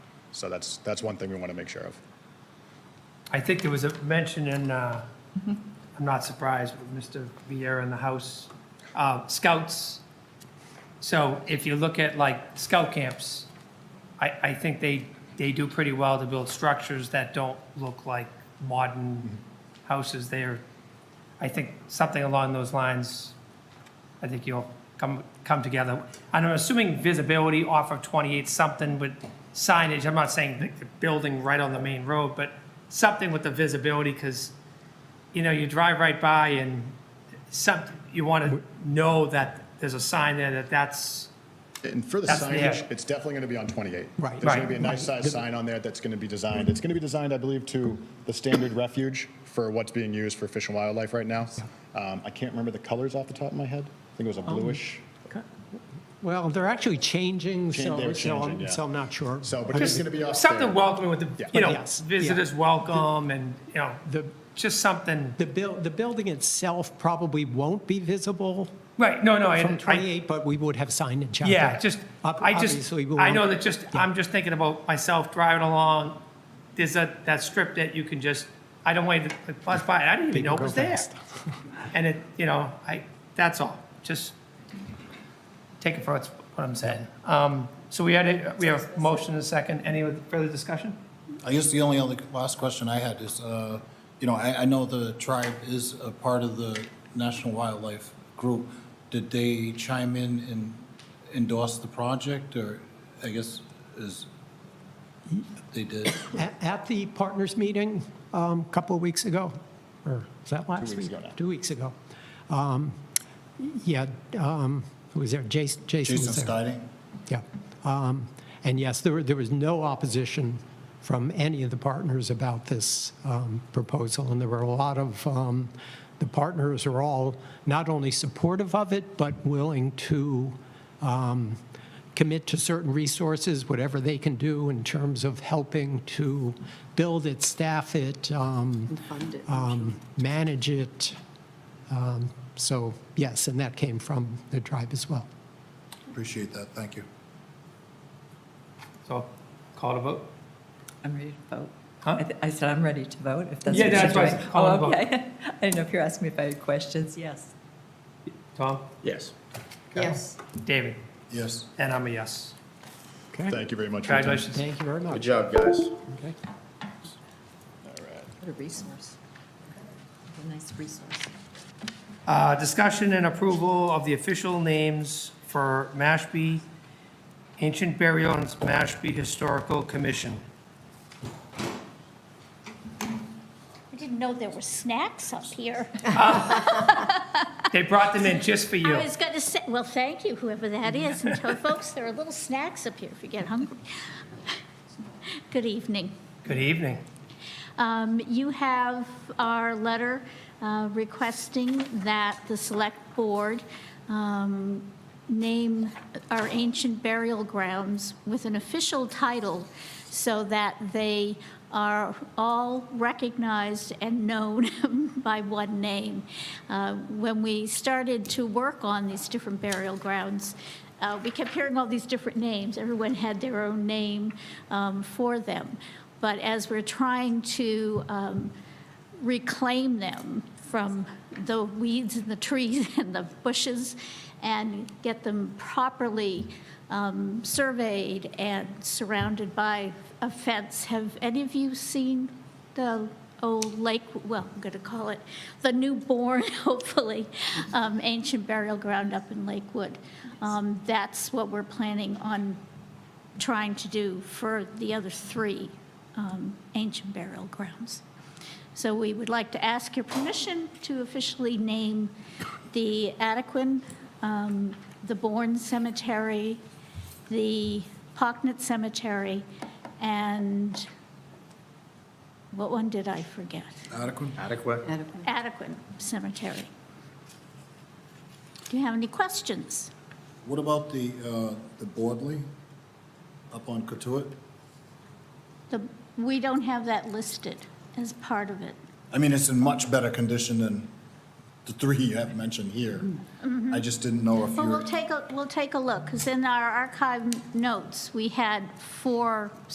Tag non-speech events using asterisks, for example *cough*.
So that's, that's one thing we want to make sure of. I think there was a mention in, uh, I'm not surprised, with Mr. Vieira in the House, uh, scouts. So if you look at like scout camps, I, I think they, they do pretty well to build structures that don't look like modern houses. They're, I think something along those lines, I think you'll come, come together. And I'm assuming visibility off of 28 something with signage, I'm not saying the- the building right on the main road, but something with the visibility, because, you know, you drive right by and some, you want to know that there's a sign there that that's, And for the That's there. signage, it's definitely going to be on 28. Right. There's going to Right. be a nice size sign on there that's going to be designed. It's going to be designed, I believe, to the standard refuge for what's being used for fish and wildlife right now. Um, I can't remember the colors off the top of my head. I think it was Um, a bluish. Well, they're actually changing, Chan- they so, were so I'm- changing, yeah. so I'm not sure. So, but it's going to be off something there. welcoming with the, Yeah. you know, Yes, yeah. visitors welcome and, you know, The, just something, the buil, the building itself probably won't be visible right, no, no. I- from I- 28, but we would have signage out Yeah, there. just, Ob- I just, obviously, we I know won't- that just, I'm just thinking about myself driving along. There's a, that strip that you can just, I don't wait, to bus by, I didn't even know it go was there. fast. And it, you know, I, that's all, just take it for what's- what I'm saying. Um, So we had, a we have a motion and a second, any further discussion? I guess the only other last question I had is, uh, you know, I, I know the tribe is a part of the National Wildlife Group. Did they chime in and endorse the project, or I guess is, they *coughs* did? At, at the partners meeting um, a couple of weeks ago, or was that last weeks week? ago now. Two weeks ago. Um, Yeah, um, who was there? Jason, Jason Jason was there. Stiding? Yeah. Um, And yes, there, were- there was no opposition from any of the partners about this um, proposal. And there were a lot of, um, the partners are all not only supportive of it, but willing to um, commit to certain resources, whatever they can do in terms of helping to build it, staff it, um, fund it. um, manage it. Um, So yes, and that came from the tribe as well. Appreciate that, thank you. So, call to vote? I'm ready to vote. Huh? I th- I said I'm ready to vote, if that's Yeah, what you're that's doing. why I said call and Oh, vote. okay. *laughs* I didn't know if you're asking me if I had questions, yes. Tom? Yes. Yes. David? Yes. And I'm a yes. Okay? Thank you very much. for your time. Congratulations. Thank you very much. Good job, guys. Okay. What a resource. What a nice resource. Uh, Discussion and approval of the official names for Mashpee Ancient Burial and Mashpee Historical Commission. I didn't know there were snacks up here. They brought them in just for you. I was going to say, well, thank you, whoever that is, and tell folks there are little snacks up here if you get hungry. *laughs* Good evening. Good evening. Um, You have our letter uh, requesting that the Select Board um, name our ancient burial grounds with an official title so that they are all recognized and known *laughs* by one name. Uh, When we started to work on these different burial grounds, uh, we kept hearing all these different names. Everyone had their own name um, for them. But as we're trying to um, reclaim them from the weeds and the trees *laughs* and the bushes and get them properly um, surveyed and surrounded by a fence, have any of you seen the old lake, well, I'm going to call it the newborn, *laughs* hopefully, um, ancient burial ground up in Lakewood? Um, That's what we're planning on trying to do for the other three um, ancient burial grounds. So we would like to ask your permission to officially name the Adequin, um, the Bourne Cemetery, the Pocknet Cemetery, and what one did I forget? Adequate? Adequate. Adequin Cemetery. Do you have any questions? What about the, uh, the Boardley up on Katuitt? The- We don't have that listed as part of it. I mean, it's in much better condition than the three you have mentioned here. I just didn't know if you Well, were. we'll take, a we'll take a look, because in our archive notes, we had four